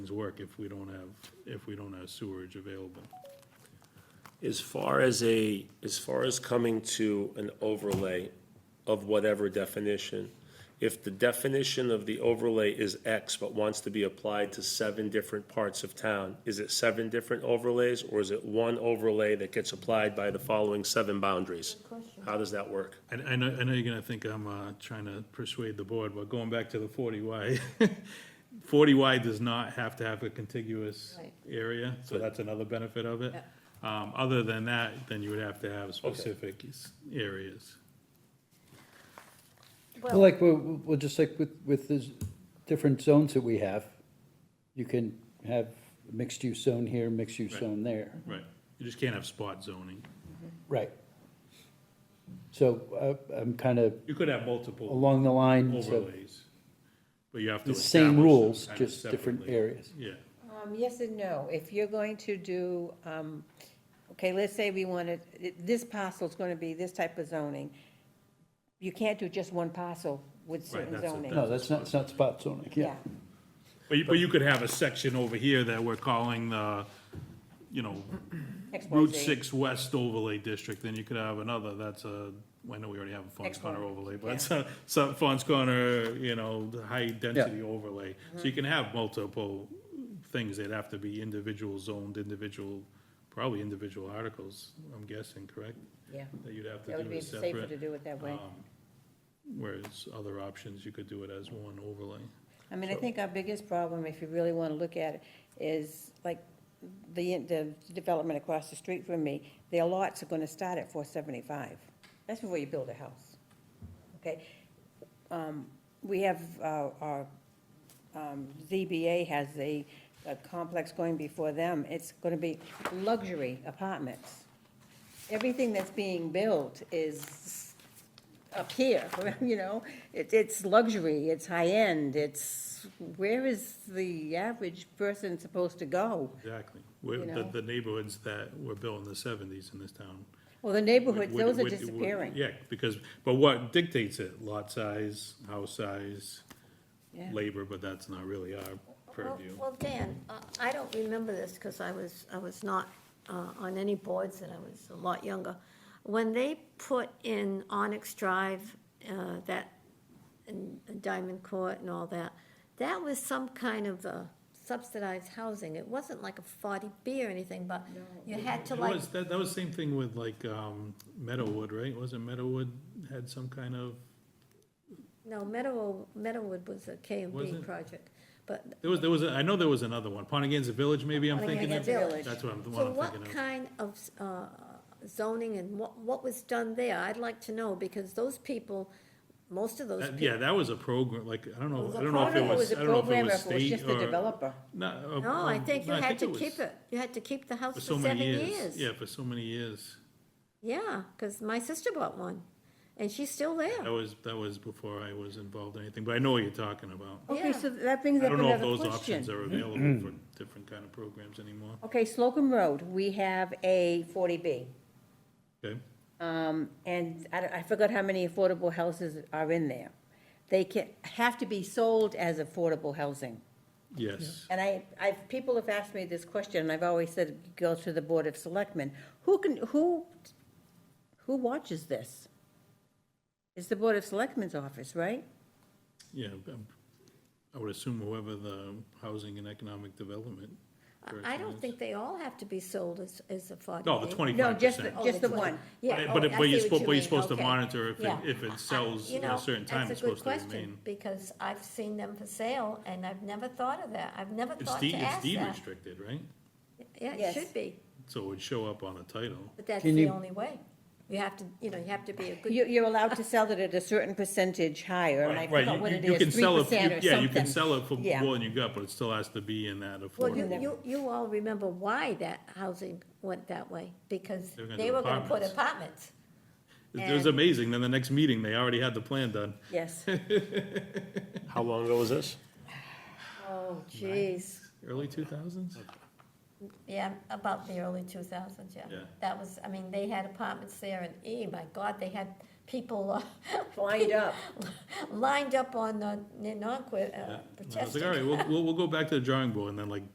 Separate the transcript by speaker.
Speaker 1: things work if we don't have, if we don't have sewerage available.
Speaker 2: As far as a, as far as coming to an overlay of whatever definition, if the definition of the overlay is X but wants to be applied to seven different parts of town, is it seven different overlays or is it one overlay that gets applied by the following seven boundaries? How does that work?
Speaker 1: And I know, I know you're gonna think I'm, uh, trying to persuade the board, but going back to the forty Y, forty Y does not have to have a contiguous
Speaker 3: Right.
Speaker 1: area, so that's another benefit of it. Um, other than that, then you would have to have specific s- areas.
Speaker 3: Well-
Speaker 4: Like, well, well, just like with, with the different zones that we have, you can have mixed-use zone here, mixed-use
Speaker 1: Right.
Speaker 4: zone there.
Speaker 1: Right, you just can't have spot zoning.
Speaker 4: Right. So, uh, I'm kind of
Speaker 1: You could have multiple
Speaker 4: along the lines of
Speaker 1: overlays, but you have to
Speaker 4: the
Speaker 1: establish.
Speaker 4: same
Speaker 1: them
Speaker 4: rules,
Speaker 1: kind of
Speaker 4: just different
Speaker 1: separately.
Speaker 4: areas.
Speaker 1: Yeah,
Speaker 3: Um, Yes and no. If you're going to do, um, okay, let's say we wanted, this parcel's going to be this type of zoning. You can't do just one parcel with certain
Speaker 1: that's it,
Speaker 3: zoning.
Speaker 4: No, that's not, it's not spot zoning, yeah.
Speaker 3: Yeah,
Speaker 1: but you, but you could have a section over here that we're calling the, you know, Route
Speaker 3: expose.
Speaker 1: Six West overlay district, then you could have another, that's a, I know we already have a Fons
Speaker 3: Excellent.
Speaker 1: Corner overlay, but it's a, some Fons Corner, you know, the high density overlay.
Speaker 3: Mm-hmm.
Speaker 1: So you can have multiple things that have to be individual zoned, individual, probably individual articles, I'm guessing, correct?
Speaker 3: Yeah,
Speaker 1: That you'd have
Speaker 3: that
Speaker 1: to
Speaker 3: would
Speaker 1: do
Speaker 3: be
Speaker 1: as
Speaker 3: safer to
Speaker 1: separate, Um,
Speaker 3: do it that way.
Speaker 1: whereas other options, you could do it as one overlay.
Speaker 3: I mean, I think our biggest problem, if you really want to look at it, is like the, the development across the street from me, their lots are going to start at four seventy-five. That's before you build a house, okay? Um, We have, uh, our, um, ZBA has a, a complex going before them. It's going to be luxury apartments. Everything that's being built is up here, you know? It, it's luxury, it's high-end, it's, where is the average person supposed to go?
Speaker 1: Exactly. Where, the,
Speaker 3: know?
Speaker 1: the neighborhoods that were built in the seventies in this town,
Speaker 3: Well, the neighborhoods,
Speaker 1: would-
Speaker 3: those are
Speaker 1: would- would-
Speaker 3: disappearing.
Speaker 1: Yeah, because, but what dictates it? Lot size, house size,
Speaker 3: Yeah.
Speaker 1: labor, but that's not really our
Speaker 5: Well-
Speaker 1: purview.
Speaker 5: Well, Dan, uh, I don't remember this because I was, I was not uh, on any boards and I was a lot younger. When they put in Onyx Drive, uh, that, and Diamond Court and all that, that was some kind of uh, subsidized housing. It wasn't like a 40B or anything, but you had to
Speaker 1: It
Speaker 5: like,
Speaker 1: was, that, that was same thing with like, um, Meadowwood, right? Wasn't Meadowwood had some kind of,
Speaker 5: no, Meadow, Meadowwood was a K and B
Speaker 1: Wasn't-
Speaker 5: project. But
Speaker 1: there was, there was, a- I know there was another one, Pontigan's Village, maybe I'm
Speaker 5: Pontigan's
Speaker 1: thinking of?
Speaker 5: Village.
Speaker 1: That's what I'm, the one
Speaker 5: So
Speaker 1: I'm
Speaker 5: what
Speaker 1: thinking of.
Speaker 5: kind of uh, zoning and what, what was done there? I'd like to know, because those people, most of those
Speaker 1: That- Uh, Yeah,
Speaker 5: people.
Speaker 1: that was a program, like, I don't
Speaker 5: It
Speaker 1: know,
Speaker 5: was a
Speaker 1: I don't know if it
Speaker 5: program, it
Speaker 1: was,
Speaker 3: a
Speaker 1: I don't know if it
Speaker 3: program,
Speaker 1: was
Speaker 3: if it was
Speaker 1: state
Speaker 3: just the
Speaker 1: or.
Speaker 3: developer.
Speaker 1: No, uh,
Speaker 5: No, I think you
Speaker 1: no,
Speaker 5: had to
Speaker 1: was
Speaker 5: keep it. You had to keep the house
Speaker 1: For
Speaker 5: for
Speaker 1: so many
Speaker 5: seven
Speaker 1: years.
Speaker 5: years.
Speaker 1: Yeah, for so many years.
Speaker 5: Yeah, because my sister bought one, and she's still there.
Speaker 1: That was, that was before I was involved in anything, but I know what you're talking about.
Speaker 3: Okay,
Speaker 5: Yeah.
Speaker 3: so that brings
Speaker 1: I
Speaker 3: up
Speaker 1: don't know if
Speaker 3: another
Speaker 1: those options
Speaker 3: question.
Speaker 1: are available for different kind of programs anymore,
Speaker 3: Okay, Slocum Road, we have a forty B.
Speaker 1: okay?
Speaker 3: Um, and I, I forgot how many affordable houses are in there. They can, have to be sold as affordable housing.
Speaker 1: Yes,
Speaker 3: And I, I, people have asked me this question, and I've always said, go to the Board of Selectmen. Who can, who, who watches this? It's the Board of Selectmen's office, right?
Speaker 1: yeah, um, I would assume whoever the Housing and Economic Development.
Speaker 5: I- I
Speaker 1: person
Speaker 5: don't
Speaker 1: is.
Speaker 5: think they all have to be sold as, as a forty
Speaker 1: No, the
Speaker 3: No,
Speaker 1: twenty-five
Speaker 3: just, the-
Speaker 1: percent.
Speaker 5: Oh,
Speaker 3: just
Speaker 5: the
Speaker 3: the
Speaker 5: 20.
Speaker 3: one.
Speaker 5: Yeah, oh,
Speaker 1: But, it-
Speaker 5: I
Speaker 1: but
Speaker 5: see
Speaker 1: you're supposed,
Speaker 5: what you
Speaker 1: but you're
Speaker 5: mean,
Speaker 1: supposed to
Speaker 5: okay.
Speaker 1: monitor if it,
Speaker 5: Yeah.
Speaker 1: if
Speaker 5: I-
Speaker 1: it sells
Speaker 5: you
Speaker 1: at
Speaker 5: know,
Speaker 1: a certain time,
Speaker 5: that's
Speaker 1: it's
Speaker 5: a good
Speaker 1: supposed to
Speaker 5: question,
Speaker 1: remain.
Speaker 5: Because I've seen them for sale, and I've never thought of that. I've never
Speaker 1: It's
Speaker 5: thought
Speaker 1: deed,
Speaker 5: to
Speaker 1: it's
Speaker 5: ask
Speaker 1: deed
Speaker 5: that.
Speaker 1: restricted, right?
Speaker 5: Yeah, it
Speaker 3: Yes.
Speaker 5: should be.
Speaker 1: So it would show up on a title.
Speaker 5: But that's
Speaker 4: Can
Speaker 5: the
Speaker 4: you-
Speaker 5: only way. You have to, you know, you have to be a
Speaker 3: You,
Speaker 5: good,
Speaker 3: you're allowed to sell it at a certain percentage higher, and I
Speaker 1: Right,
Speaker 3: forgot
Speaker 1: you-
Speaker 3: what
Speaker 1: you-
Speaker 3: it
Speaker 1: you can
Speaker 3: is, three
Speaker 1: sell it-
Speaker 3: percent or something.
Speaker 1: Yeah, you can sell it for
Speaker 3: Yeah.
Speaker 1: more than you got, but it still has to be in that
Speaker 5: well,
Speaker 1: affordable.
Speaker 5: you, you, you all remember why that housing went that way, because
Speaker 1: They were gonna
Speaker 5: they
Speaker 1: do
Speaker 5: were gonna put
Speaker 1: apartments.
Speaker 5: apartments.
Speaker 1: It was
Speaker 5: and-
Speaker 1: amazing, then the next meeting, they already had the plan done.
Speaker 3: Yes.
Speaker 2: How long ago was this?
Speaker 5: Oh, jeez.
Speaker 1: Early two thousands?
Speaker 5: Yeah, about the early two thousands, yeah.
Speaker 1: Yeah.
Speaker 5: That was, I mean, they had apartments there, and eh, my God, they had people uh,
Speaker 3: Lined up.
Speaker 5: lined up on the Nonquit uh,
Speaker 1: I was
Speaker 5: protesting. uh,
Speaker 1: like, all right, we'll, we'll, we'll go back to the drawing board and then like